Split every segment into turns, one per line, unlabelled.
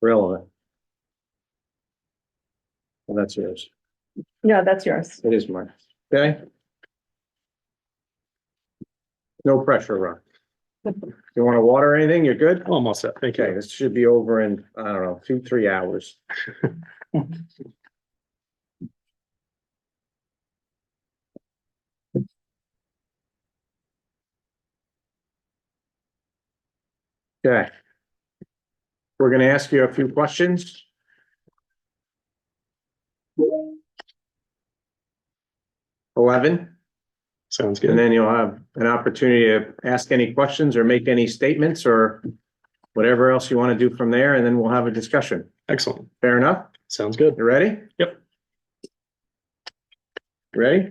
relevant. Well, that's yours.
No, that's yours.
It is mine. Okay? No pressure, Ron. You want to water anything? You're good?
Almost Oh, set, thank
Okay,
you.
this should be over in, I don't know, two, three hours. Okay. We're gonna ask you a few questions. Eleven,
Sounds
and
good.
then you'll have an opportunity to ask any questions or make any statements or whatever else you want to do from there, and then we'll have a discussion.
Excellent.
Fair enough?
Sounds good.
You ready?
Yep.
Ready?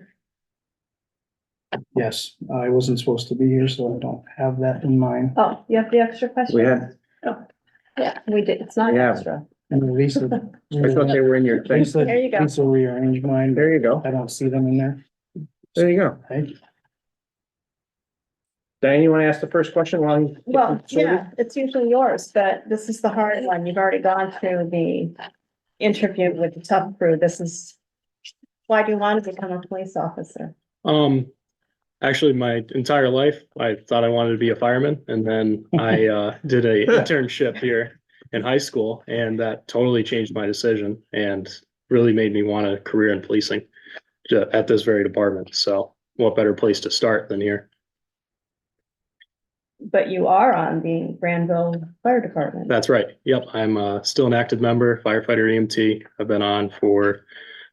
Yes, I wasn't supposed to be here, so I don't have that in mind.
Oh, you have the extra question?
We had,
Yeah, we did. It's not
We have.
extra.
And Lisa.
I thought they were in your thing.
Lisa,
There you go.
Lisa rearranged mine, but
There you go.
I don't see them in there.
There you go.
Thank you.
Diane, you want to ask the first question while? you-
Well, yeah, it's usually yours, but this is the hard one. You've already gone through the interview with the tough crew. This is why do you want to become a police officer?
Um, actually, my entire life, I thought I wanted to be a fireman, and then I uh did a internship here in high school, and that totally changed my decision and really made me want a career in policing ju- at this very department. So, what better place to start than here?
But you are on the Granville Fire Department.
That's right. Yep, I'm uh, still an active member, firefighter EMT. I've been on for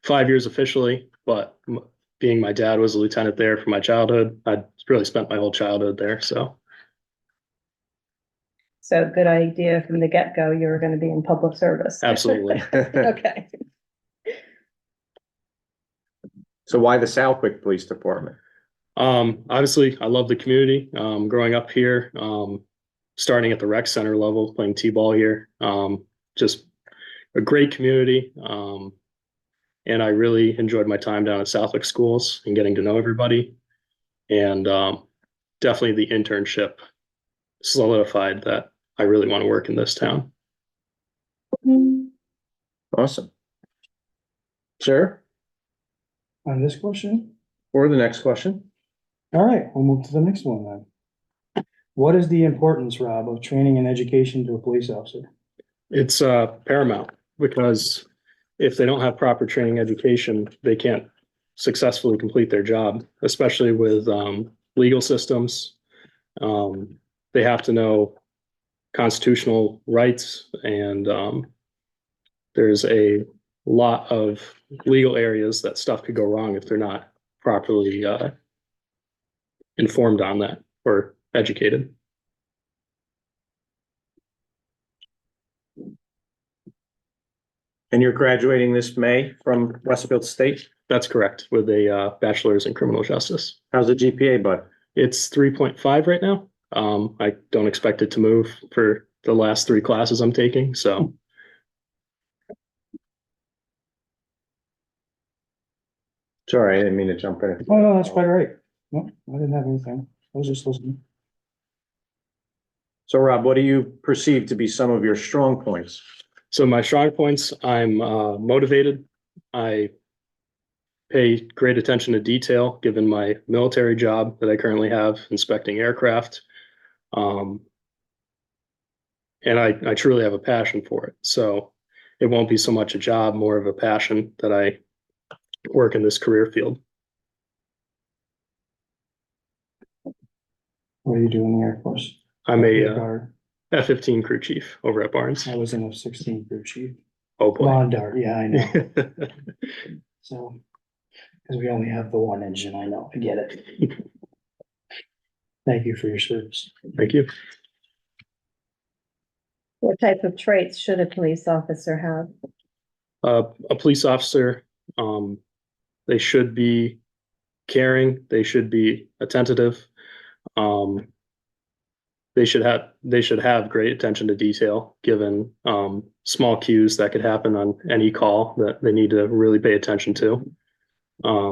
five years officially, but m- being my dad was a lieutenant there from my childhood, I really spent my whole childhood there. So
So good idea from the get-go, you're going to be in public service.
absolutely.
Okay.
So why the Southwick Police Department?
Um, obviously, I love the community. Um, growing up here, um, starting at the rec center level, playing t-ball here, um, just a great community. Um, and I really enjoyed my time down at Southwick Schools and getting to know everybody. And um, definitely the internship solidified that I really want to work in this town.
Awesome. Sure,
On this question,
or the next question?
all right, we'll move to the next one then. What is the importance, Rob, of training and education to a police officer?
It's uh, paramount because if they don't have proper training education, they can't successfully complete their job, especially with um, legal systems. Um, they have to know constitutional rights and um, there's a lot of legal areas that stuff could go wrong if they're not properly uh, informed on that or educated.
And you're graduating this May from Westfield State?
That's correct with a uh, bachelor's in criminal justice.
How's the GPA, bud?
It's three point five right now. Um, I don't expect it to move for the last three classes I'm taking, so
Sorry, I didn't mean to jump in.
Oh, no, that's quite all right. No, I didn't have anything. I was just listening.
So Rob, what do you perceive to be some of your strong points?
so my strong points, I'm uh motivated. I pay great attention to detail, given my military job that I currently have inspecting aircraft. Um and I I truly have a passion for it, so it won't be so much a job, more of a passion that I work in this career field.
What do you do in the Air Force?
I'm a uh,
Guard.
F fifteen crew chief over at Barnes.
I was in a sixteen crew chief.
Oh boy.
Lawn dart, yeah, I know. So, because we only have the one engine, I know, I get it. Thank you for your service.
Thank you.
What type of traits should a police officer have?
Uh, a police officer, um, they should be caring, they should be attentive. Um, they should have, they should have great attention to detail, given, um, small cues that could happen on any call that they need to really pay attention to. Um,